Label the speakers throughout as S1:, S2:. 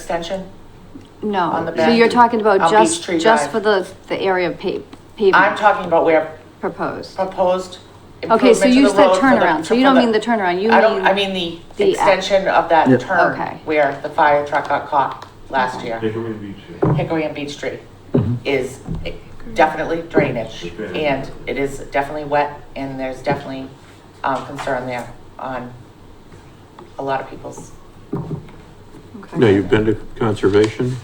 S1: extension? On
S2: No,
S1: the
S2: so you're
S1: back,
S2: talking about
S1: on
S2: just,
S1: Peachtree
S2: just
S1: Drive.
S2: for the, the area pa-
S1: I'm
S2: pavement
S1: talking about where
S2: proposed.
S1: proposed
S2: Okay,
S1: improvement
S2: so
S1: to the
S2: you
S1: road
S2: said
S1: for the-
S2: turnaround, so you
S1: for
S2: don't mean the turnaround, you
S1: I don't, I
S2: mean,
S1: mean the
S2: the-
S1: extension of that
S3: Yeah.
S1: turn
S2: Okay.
S1: where the fire truck got caught last
S2: Okay.
S1: year.
S4: Hickory Beach. yeah.
S1: Hickory and Beach Street
S5: Mm-hmm.
S1: is definitely drainage
S4: Drainage.
S1: and it is definitely wet and there's definitely, um, concern there on a lot of people's.
S2: Okay.
S6: Now, you've been to conservation?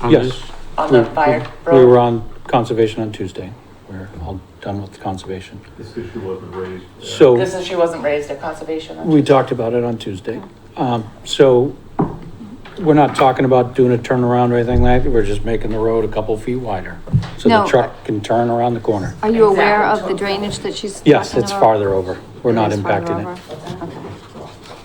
S6: on
S5: Yes.
S6: this?
S1: On the
S5: We- we-
S1: fire
S5: We were
S1: road,
S5: on conservation on Tuesday. We're all done with conservation.
S4: This issue wasn't raised. uh,
S5: So-
S1: this issue wasn't raised at conservation.
S5: We talked about it on Tuesday. Um, so we're not talking about doing a turnaround or anything like that. We're just making the road a couple feet wider. So the
S2: No.
S5: truck can turn around the corner.
S2: Are you aware
S1: Exactly.
S2: of the drainage that she's?
S5: Yes,
S2: talking
S5: it's
S2: about?
S5: farther over. We're not
S2: It's farther
S5: impacting it.
S2: over. Okay.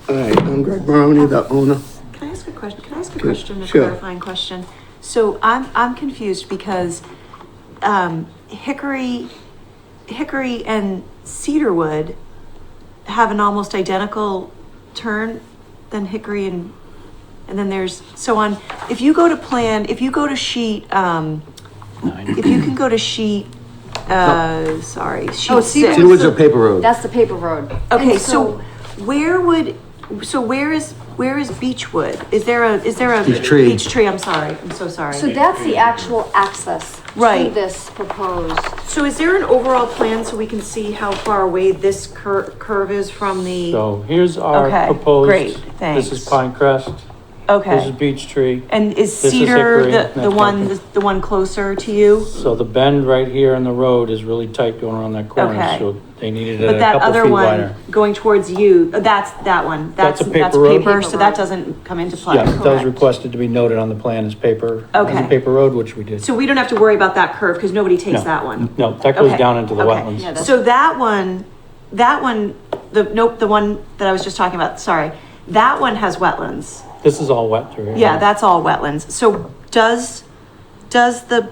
S3: All right, I'm Greg Maroney, the owner.
S7: Can I ask a question? Can I ask a question, a
S3: Sure.
S7: clarifying question? So I'm, I'm confused because, um, Hickory, Hickory and Cedarwood have an almost identical turn than Hickory and, and then there's, so on, if you go to plan, if you go to sheet, um,
S5: Nine.
S7: if you can go to sheet, uh, sorry,
S2: Oh,
S7: sheet
S2: Cedarwood's
S7: six.
S3: Cedarwood's a
S2: the-
S3: paper road.
S2: That's the paper road.
S7: Okay,
S2: And
S7: so where would, so where is, where is Beechwood? Is there a, is there a?
S3: Peachtree.
S7: Peachtree, I'm sorry, I'm so sorry.
S2: So that's the actual access to
S7: Right.
S2: this proposed,
S7: So is there an overall plan so we can see how far away this cur- curve is from the?
S5: So here's our
S7: Okay,
S5: proposed.
S7: great,
S5: This is
S7: thanks.
S5: Pine Crest. This is
S7: Okay,
S5: Beech Tree.
S7: and is
S5: This is
S7: Cedar
S5: Hickory,
S7: the, the
S5: that's
S7: one,
S5: Hickory.
S7: the the one closer to you?
S5: So the bend right here in the road is really tight going around that corner,
S7: Okay.
S5: so they needed it
S7: But
S5: a
S7: that
S5: couple
S7: other
S5: feet wider.
S7: one going towards you, uh, that's that one, that's,
S5: That's a paper
S7: that's
S5: road?
S7: paper,
S2: Paper
S7: so that
S2: road.
S7: doesn't come into play,
S5: Yes, that was
S7: correct?
S5: requested to be noted on the plan as paper, as a
S7: Okay.
S5: paper road, which we did.
S7: So we don't have to worry about that curve because nobody takes
S5: No.
S7: that one?
S5: No, that goes
S7: Okay.
S5: down into the
S7: Okay.
S5: wetlands.
S2: Yeah, that's-
S7: So that one, that one, the, nope, the one that I was just talking about, sorry, that one has wetlands.
S5: This is all wet through here.
S7: Yeah, that's all wetlands. So does, does the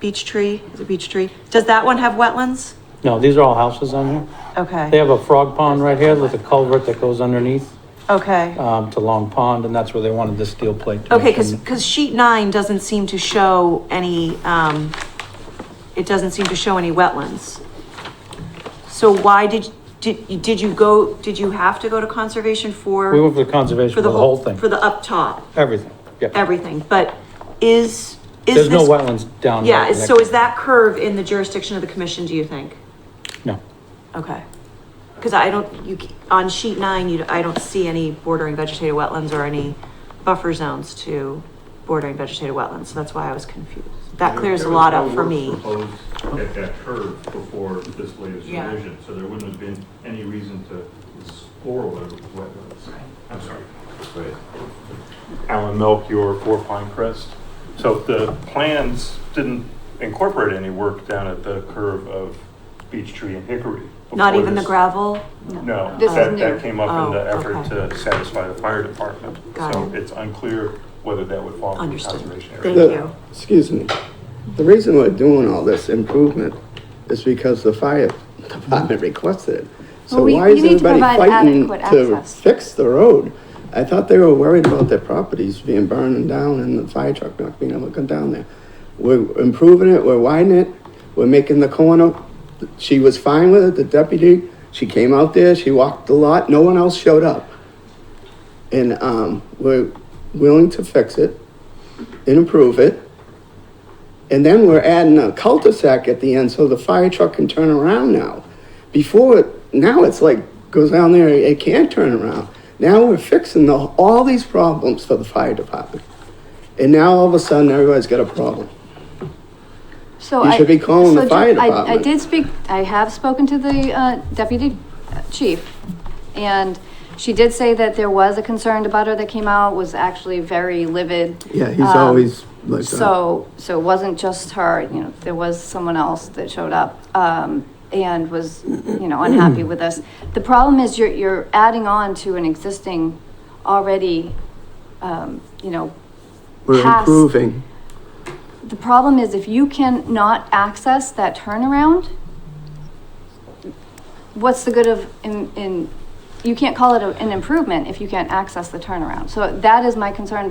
S7: beech tree, is it beech tree? Does that one have wetlands?
S5: No, these are all houses on here. They
S7: Okay,
S5: have a frog pond right here with a culvert that goes underneath,
S7: okay.
S5: um, to Long Pond, and that's where they wanted the steel plate to.
S7: Okay,
S5: make
S7: because,
S5: them-
S7: because sheet nine doesn't seem to show any, um, it doesn't seem to show any wetlands. So why did, did, did you go, did you have to go to conservation for?
S5: We went for the conservation for the whole thing,
S7: For the up top,
S5: everything, yeah.
S7: everything, but is, is
S5: There's no
S7: this-
S5: wetlands down.
S7: Yeah,
S5: right
S7: is-
S5: next-
S7: so is that curve in the jurisdiction of the commission, do you think?
S5: No.
S7: Okay. Because I don't, you, c- on sheet nine, you, I don't see any bordering vegetated wetlands or any buffer zones to bordering vegetated wetlands, so that's why I was confused. That
S4: there-
S7: clears a
S4: there was
S7: lot
S4: no
S7: up for
S4: work
S7: me.
S4: Proposed at that curve before this latest
S1: Yeah.
S4: revision, so there wouldn't have been any reason to explore wet- wetlands. I'm sorry. Alan Melchior, Four Pine Crest. So the plans didn't incorporate any work down at the curve of Beech Tree and Hickory.
S7: Not
S4: before
S7: even the
S4: this.
S7: gravel?
S4: No,
S2: This is
S4: that,
S2: new.
S4: that came up in
S7: Oh,
S4: the effort
S7: okay.
S4: to satisfy the fire department.
S7: Got
S4: So
S7: it.
S4: it's unclear whether that would fall under the
S7: Understood.
S4: conservation area.
S7: Thank
S3: The-
S7: you.
S3: Excuse me. The reason we're doing all this improvement is because the fire department requested it. So
S2: Well, we-
S3: why
S2: you
S3: is
S2: need to
S3: everybody
S2: provide
S3: fighting
S2: adequate
S3: to
S2: access.
S3: fix the road? I thought they were worried about their properties being burning down and the fire truck not being able to come down there. We're improving it, we're widening it, we're making the corner. She was fine with it, the deputy, she came out there, she walked the lot, no one else showed up. And, um, we're willing to fix it and improve it. And then we're adding a cul-de-sac at the end so the fire truck can turn around now. Before, it now it's like, goes down there, it can't turn around. Now we're fixing the, all these problems for the fire department. And now all of a sudden, everybody's got a problem.
S2: so
S3: You
S2: I.
S3: should be calling the
S2: so
S3: fire
S2: I- I
S3: department.
S2: did speak, I have spoken to the, uh, deputy uh, chief, and she did say that there was a concerned abutter that came out, was actually very livid. Um,
S3: like
S2: So, so it wasn't just her, you know, there was someone else that showed up, um, and was, you know, unhappy with us. The problem is you're, you're adding on to an existing already, um, you know, We're past- improving. the problem is if you can not access that turnaround, what's the good of in, in you can't call it a- an improvement if you can't access the turnaround. So that is my concern